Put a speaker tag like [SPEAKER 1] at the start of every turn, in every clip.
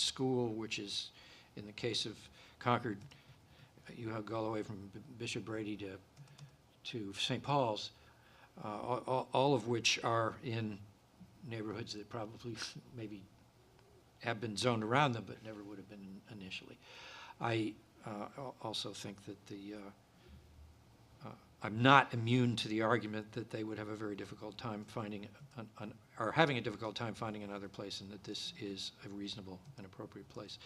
[SPEAKER 1] school, which is, in the case of Concord, you have go all the way from B- Bishop Brady to, to St. Paul's, uh, all- all, all of which are in neighborhoods that probably maybe have been zoned around them, but never would have been initially. I uh, al- also think that the, uh, I'm not immune to the argument that they would have a very difficult time finding, an- an- or having a difficult time finding another place, and that this is a reasonable and appropriate place.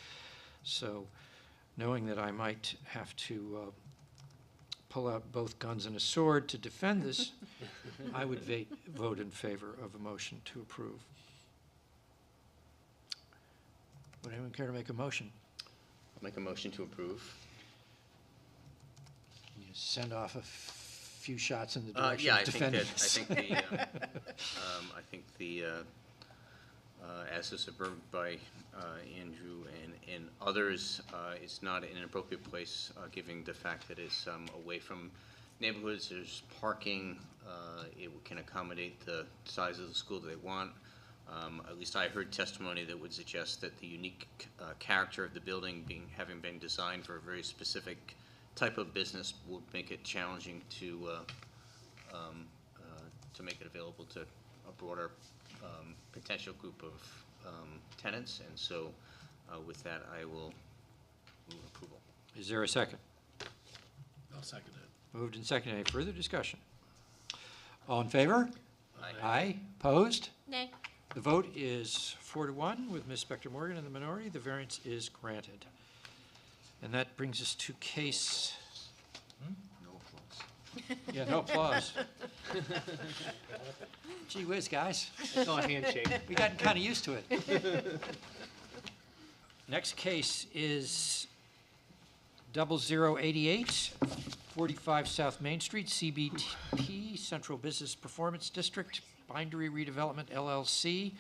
[SPEAKER 1] So, knowing that I might have to uh, pull out both guns and a sword to defend this, I would va- vote in favor of a motion to approve. Would anyone care to make a motion?
[SPEAKER 2] I'll make a motion to approve.
[SPEAKER 1] Can you send off a f- few shots in the
[SPEAKER 2] Uh,
[SPEAKER 1] direction
[SPEAKER 2] yeah, I
[SPEAKER 1] of
[SPEAKER 2] think
[SPEAKER 1] defending
[SPEAKER 2] that, I
[SPEAKER 1] this?
[SPEAKER 2] think the, uh, um, I think the, uh, uh, as is observed by, uh, Andrew and, and others, uh, it's not an inappropriate place, uh, given the fact that it's, um, away from neighborhoods, there's parking, uh, it can accommodate the size of the school that they want. Um, at least I heard testimony that would suggest that the unique, uh, character of the building being, having been designed for a very specific type of business would make it challenging to, uh, um, uh, to make it available to a broader um, potential group of um, tenants. And so uh, with that, I will move approval.
[SPEAKER 1] Is there a second?
[SPEAKER 3] I'll second it.
[SPEAKER 1] Moved and seconded. Any further discussion? All in favor? Aye. Opposed?
[SPEAKER 4] Nay.
[SPEAKER 1] The vote is four to one with Ms. Spector Morgan in the minority. The variance is granted. And that brings us to case,
[SPEAKER 3] Hmm?
[SPEAKER 2] No applause.
[SPEAKER 1] yeah, no applause. Gee whiz, guys.
[SPEAKER 3] It's all handshake.
[SPEAKER 1] We've gotten kind of used to it. Next case is 0088, 45 South Main Street, CBP, Central Business Performance District, Bindery Redevelopment LLC.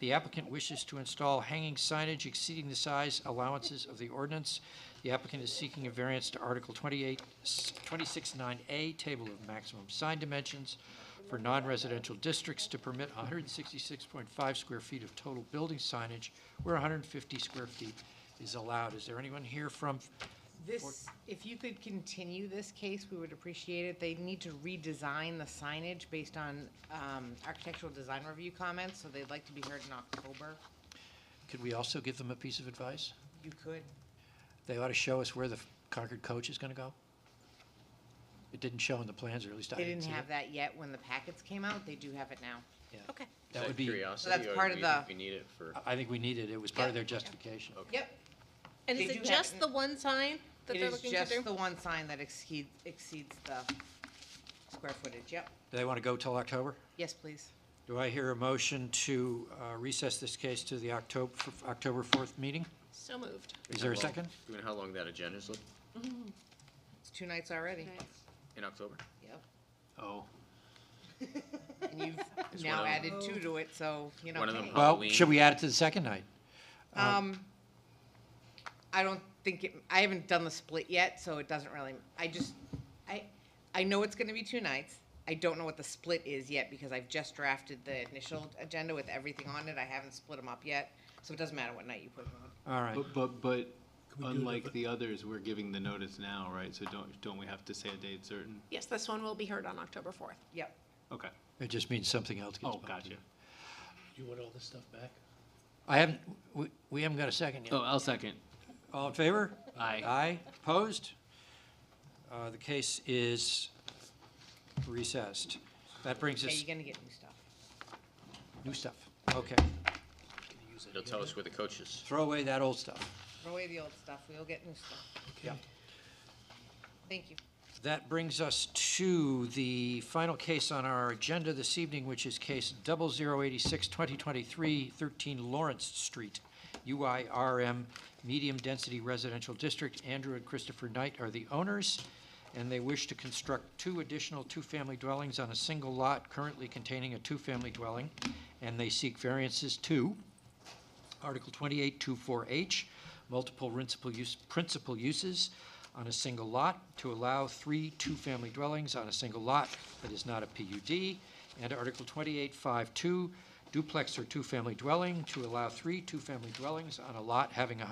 [SPEAKER 1] The applicant wishes to install hanging signage exceeding the size allowances of the ordinance. The applicant is seeking a variance to Article 28, 269A, Table of Maximum Sign Dimensions for non-residential districts to permit 166.5 square feet of total building signage where 150 square feet is allowed. Is there anyone here from
[SPEAKER 5] This, if you could continue this case, we would appreciate it. They need to redesign the signage based on um, architectural design review comments, so they'd like to be heard in October.
[SPEAKER 1] Could we also give them a piece of advice?
[SPEAKER 5] You could.
[SPEAKER 1] They ought to show us where the Concord coach is going to go. It didn't show in the plans, or at least I
[SPEAKER 5] They
[SPEAKER 1] didn't
[SPEAKER 5] didn't
[SPEAKER 1] see it.
[SPEAKER 5] have that yet when the packets came out. They do have it now.
[SPEAKER 4] Okay.
[SPEAKER 1] That would be,
[SPEAKER 2] Curiosity?
[SPEAKER 5] that's
[SPEAKER 2] or
[SPEAKER 5] part
[SPEAKER 2] do
[SPEAKER 5] of
[SPEAKER 2] you think
[SPEAKER 5] the-
[SPEAKER 2] We need it for,
[SPEAKER 1] I- I think we needed, it It was part of
[SPEAKER 5] Yeah.
[SPEAKER 1] their justification.
[SPEAKER 2] Okay.
[SPEAKER 5] Yep.
[SPEAKER 4] And is
[SPEAKER 5] They
[SPEAKER 4] it
[SPEAKER 5] do have it
[SPEAKER 4] just
[SPEAKER 5] in-
[SPEAKER 4] the one sign that
[SPEAKER 5] It
[SPEAKER 4] they're
[SPEAKER 5] is
[SPEAKER 4] looking to
[SPEAKER 5] just
[SPEAKER 4] do?
[SPEAKER 5] the one sign that exceeds, exceeds the square footage. Yep.
[SPEAKER 1] Do they want to go till October?
[SPEAKER 5] Yes, please.
[SPEAKER 1] Do I hear a motion to uh, recess this case to the October, October 4th meeting?
[SPEAKER 4] So moved.
[SPEAKER 1] Is there a
[SPEAKER 2] Well,
[SPEAKER 1] second?
[SPEAKER 2] Given how long that agenda's look,
[SPEAKER 5] It's two nights already.
[SPEAKER 2] in October?
[SPEAKER 5] Yep.
[SPEAKER 1] Oh.
[SPEAKER 5] And you've
[SPEAKER 2] It's
[SPEAKER 5] now
[SPEAKER 2] one of
[SPEAKER 5] added two to it, so, you know.
[SPEAKER 2] One of them
[SPEAKER 5] hey.
[SPEAKER 1] Well,
[SPEAKER 2] Halloween.
[SPEAKER 1] should we add it to the second night?
[SPEAKER 5] Um, I don't think it, I haven't done the split yet, so it doesn't really, I just, I, I know it's gonna be two nights. I don't know what the split is yet because I've just drafted the initial agenda with everything on it. I haven't split them up yet, so it doesn't matter what night you put them on.
[SPEAKER 1] All right.
[SPEAKER 6] But, but, but unlike the others, we're giving the notice now, right? So don't, don't we have to say a date certain?
[SPEAKER 7] Yes, this one will be heard on October 4th.
[SPEAKER 5] Yep.
[SPEAKER 6] Okay.
[SPEAKER 1] It just means something else gets
[SPEAKER 6] Oh,
[SPEAKER 1] bumped
[SPEAKER 6] gotcha.
[SPEAKER 1] in.
[SPEAKER 3] You want all this stuff back?
[SPEAKER 1] I haven't, we- we haven't got a second yet.
[SPEAKER 6] Oh, I'll second.
[SPEAKER 1] All in favor?
[SPEAKER 6] Aye.
[SPEAKER 1] Aye, opposed? Uh, The case is recessed. That brings
[SPEAKER 5] Yeah,
[SPEAKER 1] us,
[SPEAKER 5] you're gonna get new stuff.
[SPEAKER 1] new stuff. Okay,
[SPEAKER 2] It'll tell us where the coach is.
[SPEAKER 1] throw away that old stuff.
[SPEAKER 5] Throw away the old stuff. We'll get new stuff.
[SPEAKER 1] Yeah.
[SPEAKER 5] Thank you.
[SPEAKER 1] That brings us to the final case on our agenda this evening, which is case 0086-2023, 13 Lawrence Street, UIRM Medium Density Residential District. Andrew and Christopher Knight are the owners, and they wish to construct two additional two-family dwellings on a single lot currently containing a two-family dwelling, and they seek variances to Article 2824H, multiple principal use, principal uses on a single lot to allow three two-family dwellings on a single lot that is not a PUD, and Article 2852 duplex or two-family dwelling to allow three two-family dwellings on a lot having a